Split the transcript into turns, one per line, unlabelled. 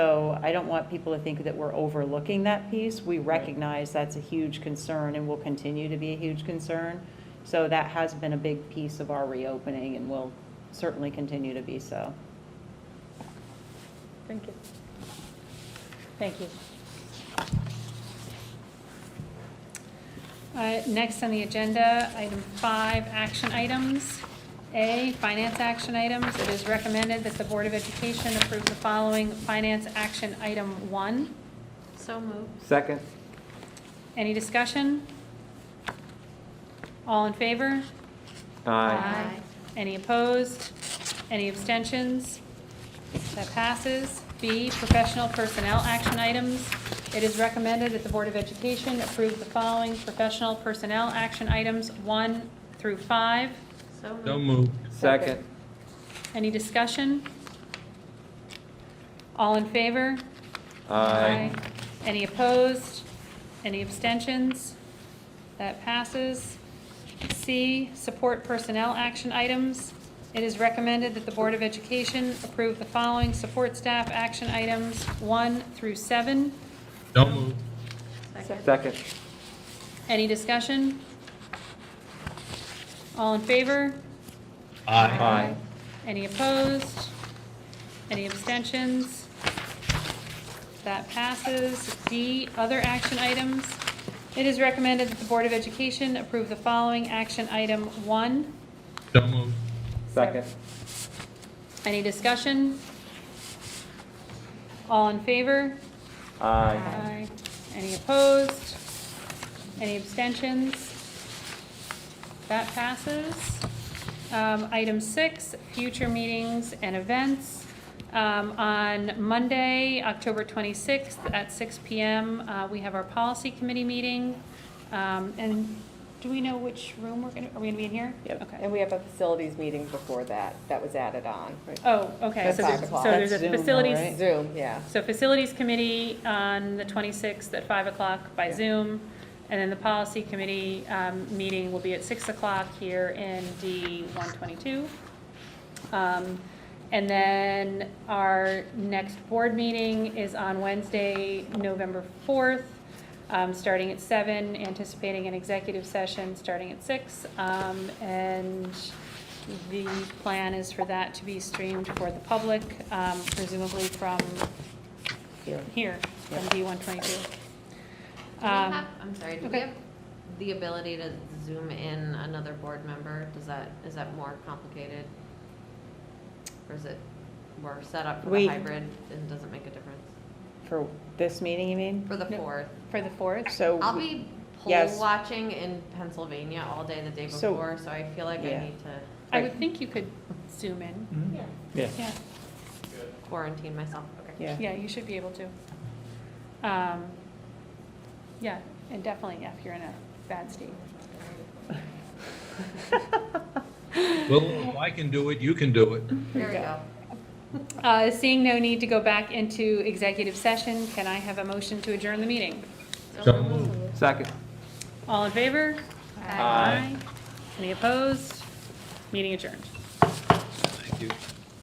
So I don't want people to think that we're overlooking that piece. We recognize that's a huge concern and will continue to be a huge concern. So that has been a big piece of our reopening and will certainly continue to be so.
Thank you. Thank you. Uh, Next on the agenda, item five, action items. A, finance action items. It is recommended that the Board of Education approve the following finance action item one. So moved.
Second?
Any discussion? All in favor?
Aye.
Any opposed? Any abstentions? That passes. B, professional personnel action items. It is recommended that the Board of Education approve the following professional personnel action items, one through five.
So moved.
Second?
Any discussion? All in favor?
Aye.
Any opposed? Any abstentions? That passes. C, support personnel action items. It is recommended that the Board of Education approve the following support staff action items, one through seven.
So moved.
Second?
Any discussion? All in favor?
Aye.
Aye.
Any opposed? Any abstentions? That passes. D, other action items. It is recommended that the Board of Education approve the following action item one.
So moved.
Second?
Any discussion? All in favor?
Aye.
Any opposed? Any abstentions? That passes. Um, Item six, future meetings and events. Um, On Monday, October 26th at 6 PM, uh, we have our policy committee meeting. Um, And do we know which room we're going to, are we going to be in here?
Yep,
Okay.
and we have a facilities meeting before that, that was added on.
Oh, okay.
That's
So
five
there's-
o'clock.
so there's
That's Zoom
a
though,
facilities
right?
Zoom, yeah.
so Facilities Committee on the 26th at 5 o'clock by Zoom, and then the Policy Committee um, meeting will be at 6 o'clock here in D122. Um, And then our next board meeting is on Wednesday, November 4th, um, starting at 7, anticipating an executive session starting at 6. Um, And the plan is for that to be streamed for the public, um, presumably from here, from D122.
Do we
Um,
have, I'm sorry, do we
okay.
have the ability to zoom in another board member? Does that, is that more complicated? Or is it, we're set up for
We-
the hybrid and doesn't make a difference?
For this meeting, you mean?
For the
No.
fourth?
For the 4th?
So.
I'll be poll
yes.
watching in Pennsylvania all day the day
So-
before, so I feel like I
Yeah.
need
I would think you could zoom in.
to
Mm-hmm. Yeah.
Yeah.
quarantine myself. Okay.
Yeah.
Yeah, you should be able to. Um, Yeah, and definitely if you're in a bad state.
Well, if I can do it, you can do it.
There we go.
Uh, Seeing no need to go back into executive session, can I have a motion to adjourn the meeting?
So moved.
Second?
All in favor?
Aye.
Any opposed? Meeting adjourned.
Thank you.